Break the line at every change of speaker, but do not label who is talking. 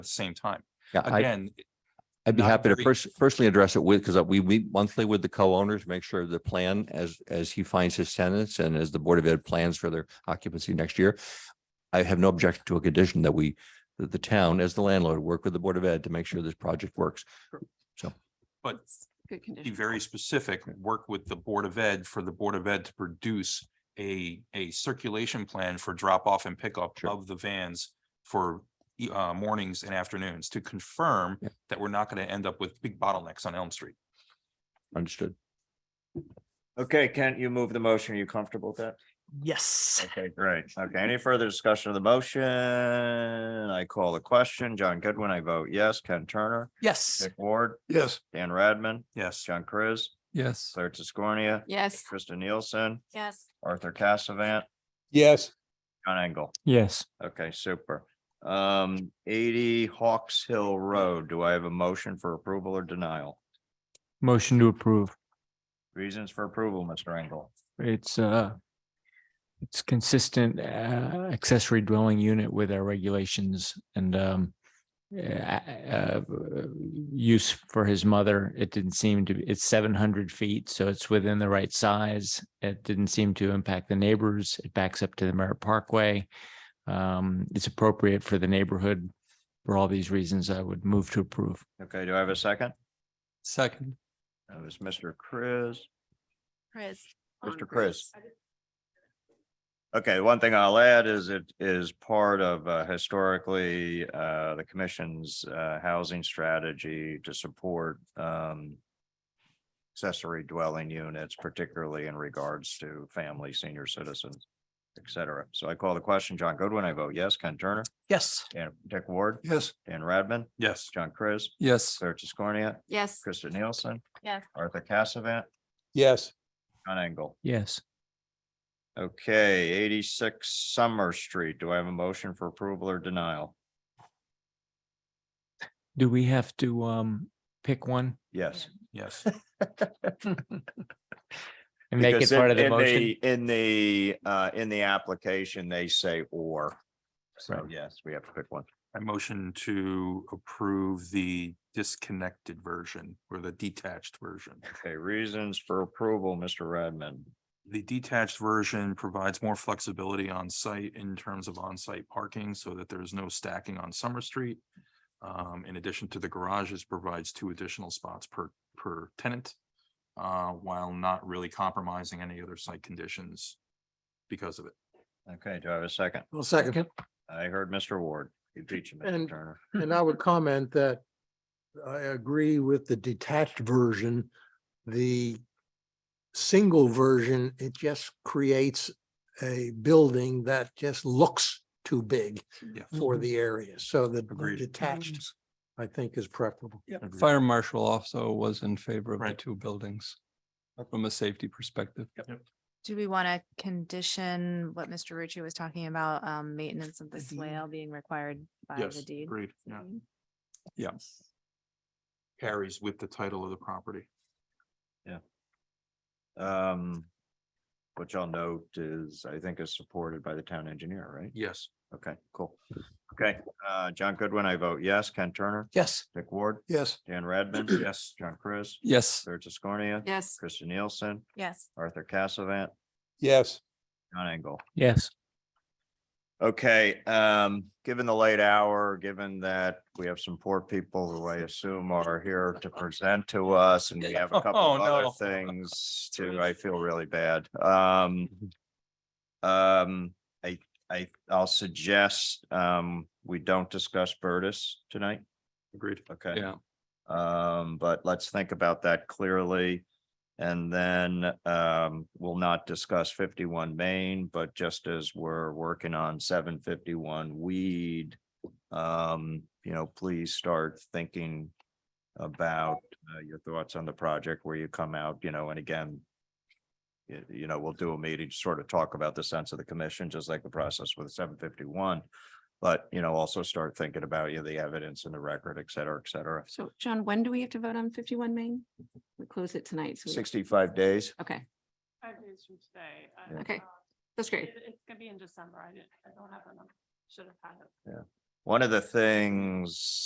the same time.
Yeah, I,
Again,
I'd be
not
happy to
every-
pers- personally address it with, because we meet monthly with the co-owners, make sure the plan as, as he finds his tenants and as the Board of Ed plans for their occupancy next year. I have no objection to a condition that we, that the town as the landlord, work with the Board of Ed to make sure this project works.
but
Good
be
condition.
very specific, work with the Board of Ed for the Board of Ed to produce a, a circulation plan for drop off and pickup
Sure.
of the vans for e- uh, mornings and afternoons to confirm
Yeah.
that we're not going to end up with big bottlenecks on Elm Street.
Understood.
Okay, Kent, you move the motion. Are you comfortable with that?
Yes.
Okay, great. Okay, any further discussion of the motion? I call the question. John Goodwin, I vote yes. Ken Turner,
Yes.
Dick Ward,
Yes.
Dan Radman,
Yes.
John Chris,
Yes.
Claire Tiscornia,
Yes.
Krista Nielsen,
Yes.
Arthur Cassavant,
Yes.
John Engel.
Yes.
Okay, super. Um, eighty Hawks Hill Road. Do I have a motion for approval or denial?
Motion to approve.
Reasons for approval, Mr. Engel.
It's uh it's consistent uh, accessory dwelling unit with our regulations and um uh, uh, use for his mother. It didn't seem to, it's seven hundred feet, so it's within the right size. It didn't seem to impact the neighbors. It backs up to the Merritt Parkway. Um, it's appropriate for the neighborhood. For all these reasons, I would move to approve.
Okay, do I have a second?
Second.
That was Mr. Chris.
Chris. Um,
Mr. Chris. Okay, one thing I'll add is it is part of uh, historically uh, the commission's uh, housing strategy to support um, accessory dwelling units, particularly in regards to family, senior citizens, et cetera. So I call the question. John Goodwin, I vote yes. Ken Turner,
Yes.
Dan- Dick Ward,
Yes.
Dan Radman,
Yes.
John Chris,
Yes.
Claire Tiscornia,
Yes.
Krista Nielsen,
Yes.
Arthur Cassavant,
Yes.
John Engel.
Yes.
Okay, eighty-six Summer Street. Do I have a motion for approval or denial?
Do we have to um pick one
Yes.
Yes.
and make it
Because in-
part of the
in
motion?
In the, uh, in the application, they say or. So
Right.
yes, we have to pick one.
I motion to approve the disconnected version or the detached version.
Okay, reasons for approval, Mr. Redmond.
The detached version provides more flexibility on site in terms of on-site parking so that there is no stacking on Summer Street. Um, in addition to the garages provides two additional spots per, per tenant. Uh, while not really compromising any other site conditions because of it.
Okay, do I have a second?
Well, second,
I heard Mr. Ward. You teach him, Mr.
And-
Turner.
and I would comment that I agree with the detached version. The single version, it just creates a building that just looks too big
Yeah.
for the area. So the
Agreed.
detached, I think, is preferable.
Agreed.
Fire marshal also was in favor of the
Right.
two buildings from a safety perspective.
Do we want to condition what Mr. Rucci was talking about, um, maintenance of the swale being required by
Yes,
the deed?
agreed, yeah.
Mhm.
Carries with the title of the property.
Um, which I'll note is, I think is supported by the town engineer, right?
Yes.
Okay, cool. Okay, uh, John Goodwin, I vote yes. Ken Turner,
Yes.
Dick Ward,
Yes.
Dan Radman.
Yes.
John Chris,
Yes,
Claire Tiscornia,
Yes.
Kristen Nielsen,
Yes.
Arthur Cassavant,
Yes.
John Engel.
Yes.
Okay, um, given the late hour, given that we have some poor people who I assume are here to present to us and we have a couple
Oh,
of other
no.
things too, I feel really bad. Um.
Mm-hmm.
Um, I, I, I'll suggest, um, we don't discuss Burtis tonight.
Agreed.
Okay.
yeah.
Um, but let's think about that clearly. And then um, we'll not discuss fifty-one Main, but just as we're working on seven fifty-one weed. Um, you know, please start thinking about uh, your thoughts on the project where you come out, you know, and again. y- You know, we'll do a meeting, to sort of talk about the sense of the commission, just like the process with seven fifty-one. But, you know, also start thinking about, you know, the evidence and the record, et cetera, et cetera.
So John, when do we have to vote on fifty-one Main? We close it tonight. so we-
Sixty-five days.
Okay,
Five days from today. I-
Yeah.
Okay,
um,
that's great.
it- It's gonna be in December. I didn't, I don't have a number. Should have had it.
One of the things